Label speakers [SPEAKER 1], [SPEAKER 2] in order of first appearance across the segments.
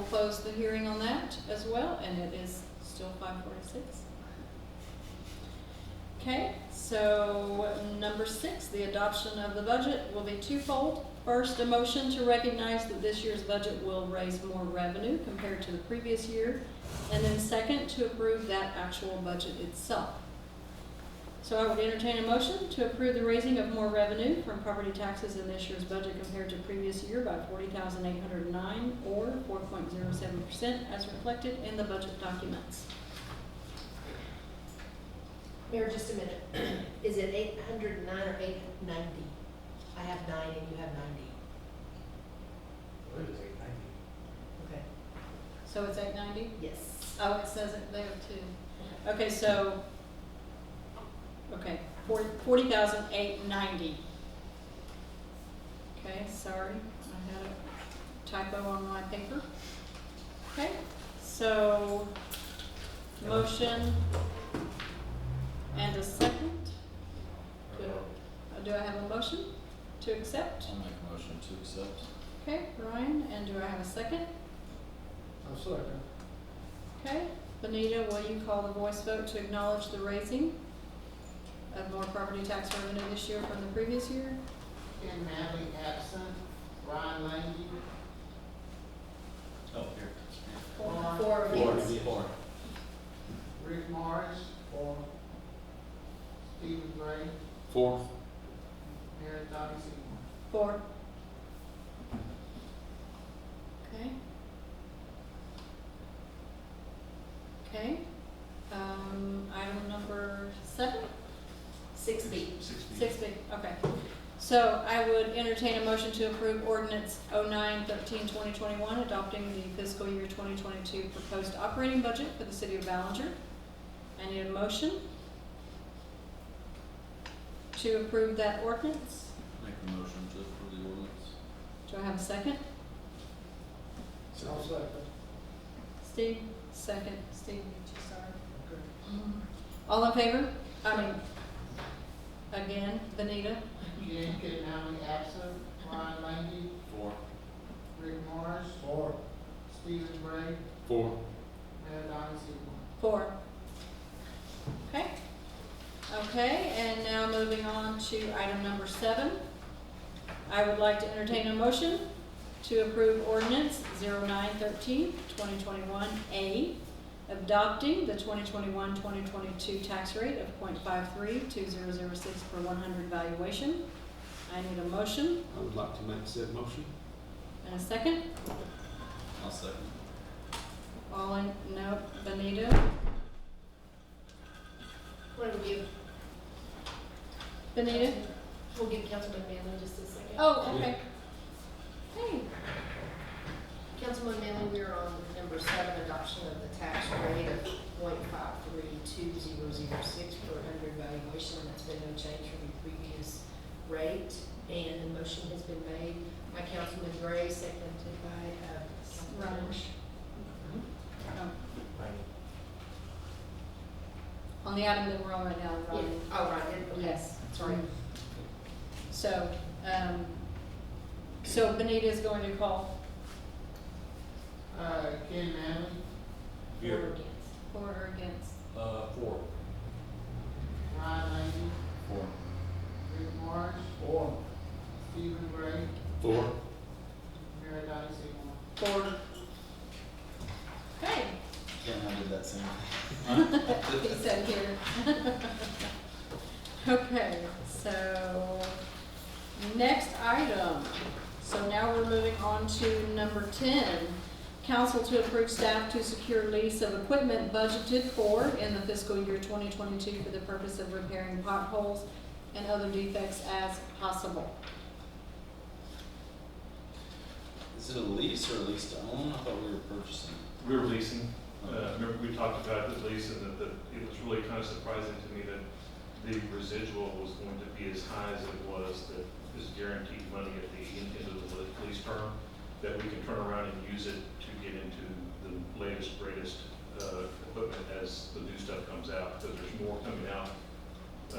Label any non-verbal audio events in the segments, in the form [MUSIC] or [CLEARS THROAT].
[SPEAKER 1] close the hearing on that as well, and it is still five forty-six. Okay, so number six, the adoption of the budget will be twofold. First, a motion to recognize that this year's budget will raise more revenue compared to the previous year. And then second, to approve that actual budget itself. So I would entertain a motion to approve the raising of more revenue from property taxes in this year's budget compared to previous year by forty thousand eight hundred nine or four point zero seven percent as reflected in the budget documents.
[SPEAKER 2] Mayor, just a minute. [CLEARS THROAT] Is it eight hundred and nine or eight ninety? I have nine and you have ninety.
[SPEAKER 3] What is eight ninety?
[SPEAKER 2] Okay.
[SPEAKER 1] So it's eight ninety?
[SPEAKER 2] Yes.
[SPEAKER 1] Oh, it says it there too. Okay, so, okay, forty, forty thousand eight ninety. Okay, sorry, I had a typo on my paper. Okay, so, motion and a second. Good. Do I have a motion to accept?
[SPEAKER 4] I'll make a motion to accept.
[SPEAKER 1] Okay, Ryan, and do I have a second?
[SPEAKER 3] I'm sorry.
[SPEAKER 1] Okay, Benita, will you call the voice vote to acknowledge the raising of more property tax revenue this year from the previous year?
[SPEAKER 5] Ken Manley absent, Ron Langy,
[SPEAKER 4] Oh, here.
[SPEAKER 5] Four.
[SPEAKER 1] Four of
[SPEAKER 4] Four,
[SPEAKER 1] yes.
[SPEAKER 4] four.
[SPEAKER 5] Rick Morris, or Stephen Gray,
[SPEAKER 4] Four.
[SPEAKER 5] Mary Dottie Seymour.
[SPEAKER 1] Four. Okay. Okay, um, item number seven?
[SPEAKER 2] Six B.
[SPEAKER 1] Six B, okay. So I would entertain a motion to approve ordinance 09-13-2021, adopting the fiscal year twenty twenty-two proposed operating budget for the city of Ballinger. I need a motion to approve that ordinance.
[SPEAKER 4] Make a motion to approve the ordinance.
[SPEAKER 1] Do I have a second?
[SPEAKER 3] I'll second.
[SPEAKER 1] Steve, second, Steve, sorry. All in favor? I mean, again, Benita,
[SPEAKER 5] Again, Ken Manley absent, Ron Langy,
[SPEAKER 4] Four.
[SPEAKER 5] Rick Morris,
[SPEAKER 3] Four.
[SPEAKER 5] Stephen Gray,
[SPEAKER 4] Four.
[SPEAKER 5] Mary Dottie Seymour.
[SPEAKER 1] Four. Okay. Okay, and now moving on to item number seven. I would like to entertain a motion to approve ordinance 0913-2021 A, adopting the 2021-2022 tax rate of 0.532006 per one hundred valuation. I need a motion
[SPEAKER 3] I would like to make said motion.
[SPEAKER 1] and a second.
[SPEAKER 4] I'll second.
[SPEAKER 1] All in, no, Benita,
[SPEAKER 2] What do we give?
[SPEAKER 1] Benita?
[SPEAKER 2] We'll give Councilman Manley just a second.
[SPEAKER 1] Oh, okay. Hey,
[SPEAKER 2] Councilman Manley, we're on number seven, adoption of the tax rate of point five three two zero zero six per hundred valuation. That's been no change from the previous rate, and the motion has been made by Councilman Gray, seconded by, uh, Councilman
[SPEAKER 1] Ryan.
[SPEAKER 2] Bush.
[SPEAKER 1] Oh. On the item that we're on right now,
[SPEAKER 2] Yeah,
[SPEAKER 1] Robin.
[SPEAKER 2] oh, right, it- okay.
[SPEAKER 1] Yes.
[SPEAKER 2] Sorry.
[SPEAKER 1] So, um, so Benita is going to call
[SPEAKER 5] Uh, Ken Manley,
[SPEAKER 2] Here.
[SPEAKER 1] for or against.
[SPEAKER 4] Uh, four.
[SPEAKER 5] Ron Langy,
[SPEAKER 4] Four.
[SPEAKER 5] Rick Morris,
[SPEAKER 3] Four.
[SPEAKER 5] Stephen Gray,
[SPEAKER 3] Four.
[SPEAKER 5] Mary Dottie Seymour.
[SPEAKER 1] For. Okay,
[SPEAKER 4] Ken, I did that same. [LAUGHS]
[SPEAKER 1] he said here. [LAUGHS] Okay, so, next item. So now we're moving on to number ten. Council to approve staff to secure lease of equipment budgeted for in the fiscal year twenty twenty-two for the purpose of repairing potholes and other defects as possible.
[SPEAKER 4] Is it a lease or a lease to own? I thought we were purchasing.
[SPEAKER 6] We were leasing, uh, remember we talked about the lease and that, that it was really kind of surprising to me that the residual was going to be as high as it was, that is guaranteed money at the end end of the le- lease term, that we can turn around and use it to get into the latest, greatest, uh, equipment as the new stuff comes out, because there's more coming out,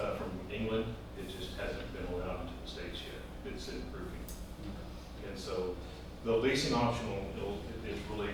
[SPEAKER 6] uh, from England, it just hasn't been allowed into the States yet, it's improving. And so, the leasing option will, it'll- it- it's really